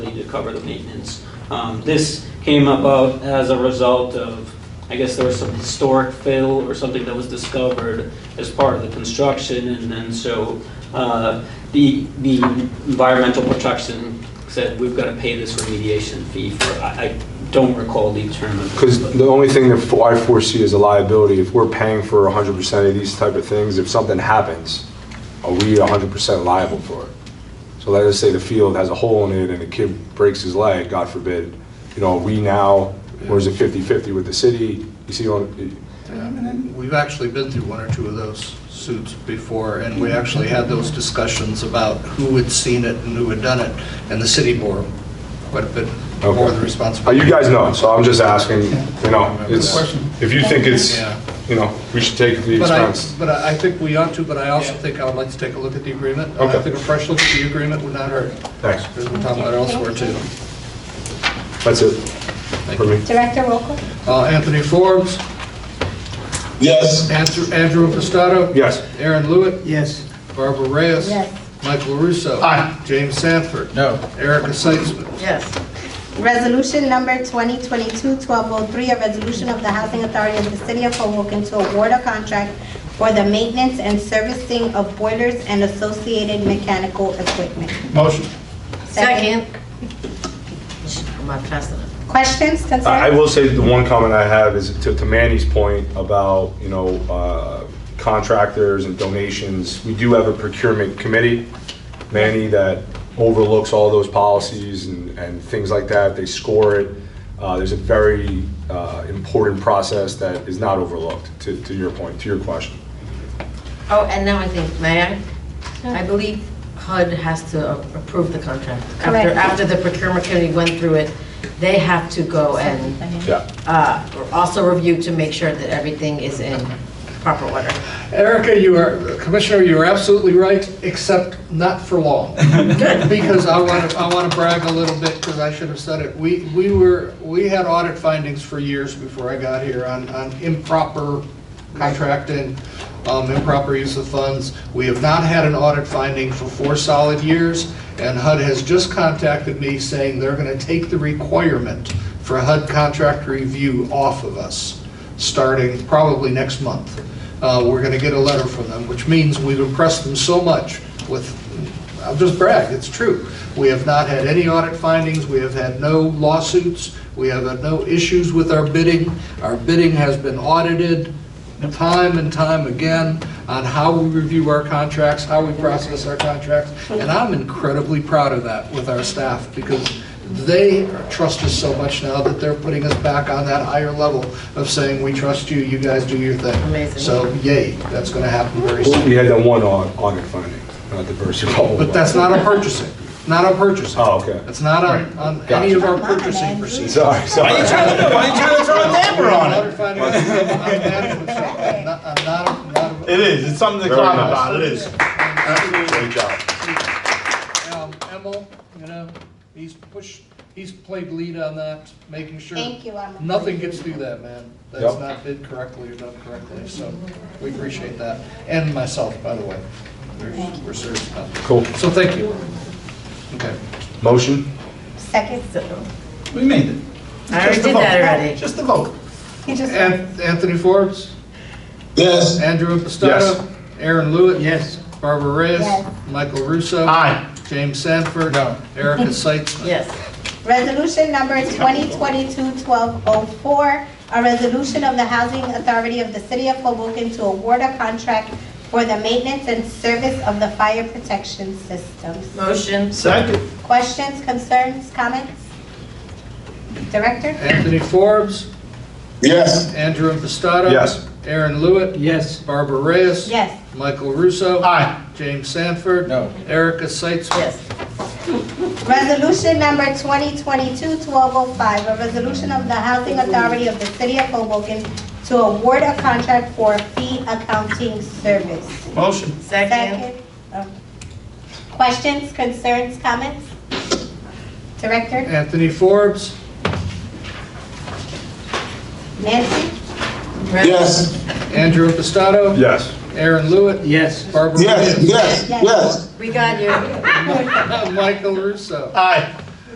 to cover the maintenance. Um, This came about as a result of, I guess there was some historic fill or something that was discovered as part of the construction, and then so uh, the, the environmental protection said, we've got to pay this remediation fee for, I I don't recall the term of it. Because the only thing that I foresee is a liability, if we're paying for 100% of these type of things, if something happens, are we 100% liable for it? So let us say the field has a hole in it and a kid breaks his leg, God forbid, you know, are we now, or is it 50/50 with the city? You see, on- We've actually been through one or two of those suits before, and we actually had those discussions about who had seen it and who had done it, and the city bore quite a bit more of Okay. the Uh, responsibility. you guys know, so I'm just asking, you know, it's, if you think it's, Yeah. you know, we should take the But I, expense. but I I think we ought to, but I also Yeah. think I would like to take a look at the agreement. I Okay. think a fresh look at the agreement would not hurt. Thanks, We're talking about elsewhere, too. that's it for me. Director Roca? Uh, Anthony Forbes, Yes. Andrew Andrew Impastato. Yes. Aaron Lewitt. Yes. Barbara Reyes. Yes. Michael Russo. Aye. James Sanford. No. Erica Seitzman. Yes. Resolution number 2022-1203, a resolution of the Housing Authority of the City of Hoboken to award a contract for the maintenance and servicing of boilers and associated mechanical equipment. Motion. Second. Am I passing it? Questions, concerns? I I will say the one comment I have is to to Manny's point about, you know, uh, contractors and donations. We do have a procurement committee, Manny, that overlooks all those policies and, and things like that. They score it. Uh, There's a very uh, important process that is not overlooked, to, to your point, to your question. Oh, and now I think, may I? I believe HUD has to a- approve the contract. After, Correct. after the procurement committee went through it, they have to go and Yeah. uh, also review to make sure that everything is in proper order. Erica, you are, Commissioner, you are absolutely right, except not for long. Because I want to, I want to brag a little bit, because I should have said it. We, we were, we had audit findings for years before I got here on, on improper contracting, um, improper use of funds. We have not had an audit finding for four solid years, and HUD has just contacted me saying they're going to take the requirement for HUD contract review off of us, starting probably next month. Uh, We're going to get a letter from them, which means we've impressed them so much with, I'll just brag, it's true. We have not had any audit findings, we have had no lawsuits, we have had no issues with our bidding. Our bidding has been audited time and time again on how we review our contracts, how we process our contracts, and I'm incredibly proud of that with our staff, because they trust us so much now that they're putting us back on that higher level of saying, we trust you, you guys do your thing. Amazing. So yay, that's going to happen very soon. We had that one au- audit finding, not the first one. But that's not on purchasing, not on purchasing. Oh, okay. It's not on, on any of our Come on, purchasing Andrew. procedures. Sorry, sorry. Why are you trying to throw a damper on it? Audit finding on management side, not- on not- not- It is, it's something to Very talk nice. about, it is. Great job. Um, Emil, you know, he's pushed, he's played lead on that, making sure. Thank you, Emil. Nothing gets through that, man. That's Yep. not bid correctly or done correctly, so we appreciate that. And myself, by the way. We're- We're serious about that. Cool. So thank you. Okay. Motion? Second. We made it. I already did that already. Just a vote. He just- An- Anthony Forbes, Yes. Andrew Yes. Impastato, Aaron Lewitt. Yes. Barbara Reyes. Yes. Michael Russo. Aye. James Sanford. No. Erica Seitzman. Yes. Resolution number 2022-1204, a resolution of the Housing Authority of the City of Hoboken to award a contract for the maintenance and service of the fire protection systems. Motion. Second. Questions, concerns, comments? Director? Anthony Forbes, Yes. Andrew Impastato. Yes. Aaron Lewitt. Yes. Barbara Reyes. Yes. Michael Russo. Aye. James Sanford. No. Erica Seitzman. Yes. Resolution number 2022-1205, a resolution of the Housing Authority of the City of Hoboken to award a contract for fee accounting service. Motion. Second. Second. Oh. Questions, concerns, comments? Director? Anthony Forbes, Nancy? Yes. Andrew Impastato. Yes. Aaron Lewitt. Yes. Barbara Yes, Reyes. yes, yes. We got you. Michael Russo. Aye.